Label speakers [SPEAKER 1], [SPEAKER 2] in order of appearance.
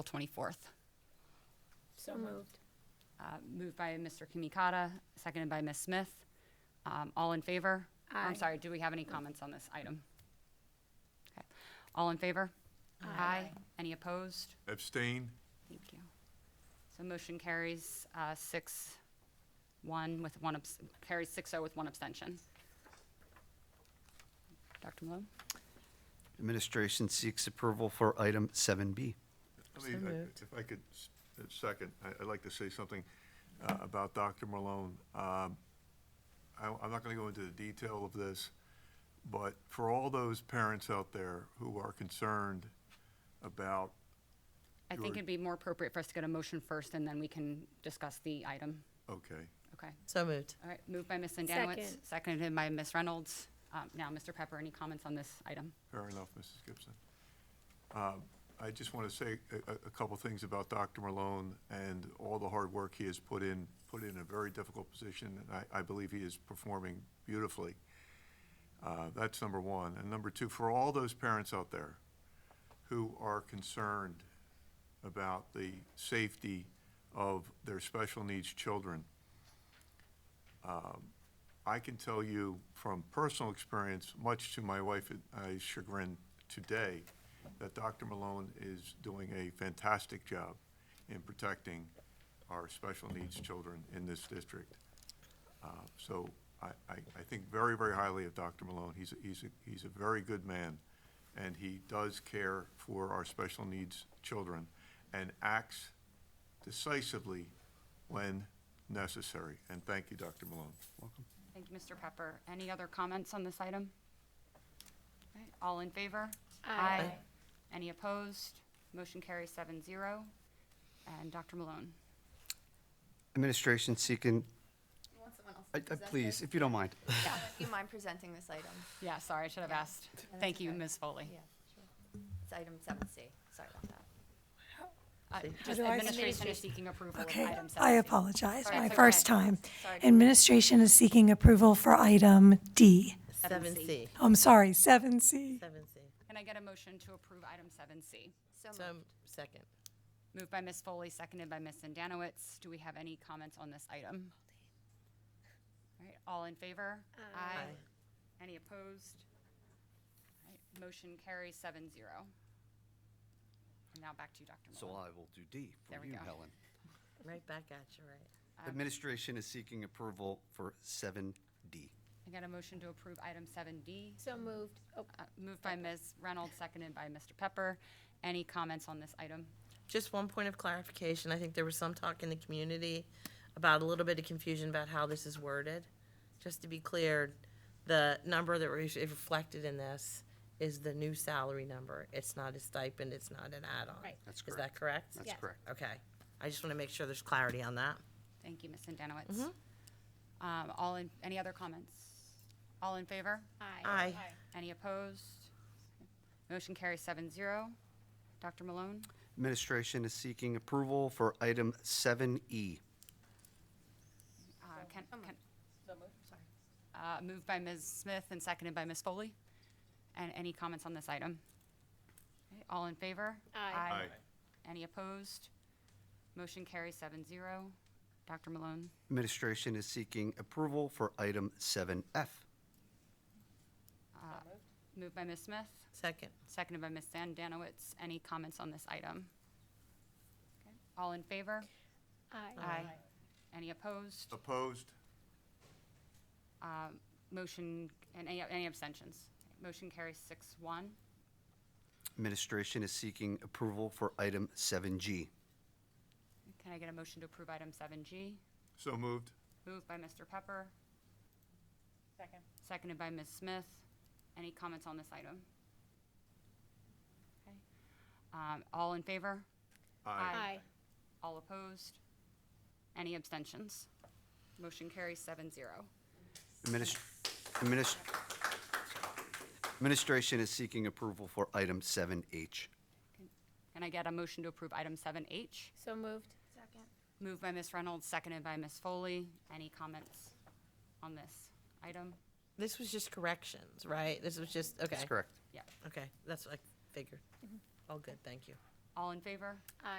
[SPEAKER 1] April 24th.
[SPEAKER 2] So moved.
[SPEAKER 1] Uh, Moved by Mr. Kimikata, seconded by Ms. Smith. Um, All in favor?
[SPEAKER 2] Aye.
[SPEAKER 1] I'm sorry, do we have any comments on this item? Okay. All in favor? Aye. Any opposed?
[SPEAKER 3] Abstain?
[SPEAKER 1] Thank you. So motion carries uh, six, one with one, abs- carries six oh with one abstention. Dr. Malone?
[SPEAKER 4] Administration seeks approval for item
[SPEAKER 3] I
[SPEAKER 4] 7B.
[SPEAKER 3] mean, I- if I could, s- uh, second, I- I'd like to say something uh, about Dr. Malone. Um, I- I'm not going to go into the detail of this, but for all those parents out there who are concerned about,
[SPEAKER 1] I think
[SPEAKER 3] Your-
[SPEAKER 1] it'd be more appropriate for us to get a motion first, and then we can discuss the item.
[SPEAKER 3] okay,
[SPEAKER 1] Okay.
[SPEAKER 5] So moved.
[SPEAKER 1] All right, moved by Ms. Zandanowits,
[SPEAKER 2] Second.
[SPEAKER 1] seconded by Ms. Reynolds. Um, Now, Mr. Pepper, any comments on this item?
[SPEAKER 3] fair enough, Mrs. Gibson. Um, I just want to say a- a a couple things about Dr. Malone and all the hard work he has put in, put in a very difficult position, and I I believe he is performing beautifully. Uh, That's number one. And number two, for all those parents out there who are concerned about the safety of their special needs children, um, I can tell you from personal experience, much to my wife and I's chagrin today, that Dr. Malone is doing a fantastic job in protecting our special needs children in this district. Uh, So I, I, I think very, very highly of Dr. Malone. He's, a- he's, a- he's a very good man, and he does care for our special needs children and acts decisively when necessary. And thank you, Dr. Malone.
[SPEAKER 1] Thank you, Mr. Pepper. Any other comments on this item? All right, All in favor?
[SPEAKER 2] Aye.
[SPEAKER 1] Any opposed? Motion carries seven zero. And Dr. Malone?
[SPEAKER 4] Administration seeking,
[SPEAKER 6] Want someone else
[SPEAKER 4] I-
[SPEAKER 6] to
[SPEAKER 4] I-
[SPEAKER 6] present
[SPEAKER 4] please,
[SPEAKER 6] this?
[SPEAKER 4] if you don't mind.
[SPEAKER 6] Do you mind presenting this item?
[SPEAKER 1] Yeah, sorry, I should have asked.
[SPEAKER 6] that's
[SPEAKER 1] Thank you,
[SPEAKER 6] okay.
[SPEAKER 1] Ms. Foley.
[SPEAKER 6] Yeah, sure. It's item seven C. Sorry about that.
[SPEAKER 1] Uh, Just
[SPEAKER 5] do I-
[SPEAKER 1] administration is seeking approval of
[SPEAKER 7] Okay,
[SPEAKER 1] item
[SPEAKER 7] I
[SPEAKER 1] 7C.
[SPEAKER 7] apologize,
[SPEAKER 1] Sorry,
[SPEAKER 7] my
[SPEAKER 1] it's
[SPEAKER 7] first
[SPEAKER 1] okay.
[SPEAKER 7] time.
[SPEAKER 6] Sorry.
[SPEAKER 7] Administration is seeking approval for item D.
[SPEAKER 5] Seven C.
[SPEAKER 7] I'm sorry, 7C.
[SPEAKER 5] Seven C.
[SPEAKER 1] Can I get a motion to approve item 7C?
[SPEAKER 6] So
[SPEAKER 5] So
[SPEAKER 6] moved.
[SPEAKER 5] Um, second.
[SPEAKER 1] Moved by Ms. Foley, seconded by Ms. Zandanowits. Do we have any comments on this item? All right, all in favor? Aye. Any opposed? All right, Motion carries seven zero. And now back to you, Dr.
[SPEAKER 4] So
[SPEAKER 1] Malone.
[SPEAKER 4] I will do D
[SPEAKER 1] There
[SPEAKER 4] for
[SPEAKER 1] we
[SPEAKER 4] you,
[SPEAKER 1] go. Um,
[SPEAKER 4] Helen.
[SPEAKER 5] Right back at you, right?
[SPEAKER 4] Administration is seeking approval for 7D.
[SPEAKER 1] I got a motion to approve item seven D, Uh,
[SPEAKER 2] So moved. Oh,
[SPEAKER 1] moved by Ms. Reynolds, seconded by Mr. Pepper. Any comments on this item?
[SPEAKER 5] Just one point of clarification. I think there was some talk in the community about a little bit of confusion about how this is worded. Just to be clear, the number that was reflected in this is the new salary number. It's not a stipend, it's not an add-on.
[SPEAKER 2] Right.
[SPEAKER 4] That's
[SPEAKER 5] Is that correct?
[SPEAKER 4] That's correct.
[SPEAKER 5] Okay. I just want to make sure there's clarity on that.
[SPEAKER 1] Thank you, Ms. Zandanowits.
[SPEAKER 2] Mm-hmm.
[SPEAKER 1] Um, all in, any other comments? All in favor?
[SPEAKER 2] Aye.
[SPEAKER 5] Aye.
[SPEAKER 1] Any opposed? Motion carries seven zero. Dr. Malone,
[SPEAKER 4] Administration is seeking approval for item E. 7E.
[SPEAKER 1] uh, can, can. Uh, moved by Ms. Smith and seconded by Ms. Foley. And any comments on this item? Okay, All in favor?
[SPEAKER 2] Aye.
[SPEAKER 1] Any opposed? Motion carries seven zero. Dr. Malone,
[SPEAKER 4] Administration is seeking approval for item 7F.
[SPEAKER 1] moved by Ms. Smith,
[SPEAKER 5] Second.
[SPEAKER 1] seconded by Ms. Zandanowits. Any comments on this item? Okay, All in favor? Aye. Any opposed?
[SPEAKER 3] Opposed?
[SPEAKER 1] Um, Motion, and any any abstentions? Motion carries six one.
[SPEAKER 4] Administration is seeking approval for item 7G.
[SPEAKER 1] Can I get a motion to approve item seven G?
[SPEAKER 3] So moved.
[SPEAKER 1] Moved by Mr. Pepper. Second. Seconded by Ms. Smith. Any comments on this item? Okay. Um, All in favor?
[SPEAKER 2] Aye.
[SPEAKER 1] All opposed? Any abstentions? Motion carries seven zero.
[SPEAKER 4] Adminis- adminis- Administration is seeking approval for item 7H.
[SPEAKER 1] Can I get a motion to approve item seven H?
[SPEAKER 2] So moved.
[SPEAKER 1] Moved by Ms. Reynolds, seconded by Ms. Foley. Any comments on this item?
[SPEAKER 5] This was just corrections, right? This was just, okay.
[SPEAKER 4] That's correct.
[SPEAKER 1] Yeah.
[SPEAKER 5] Okay, that's what I figured. All good, thank you.
[SPEAKER 8] All in favor?
[SPEAKER 1] Aye.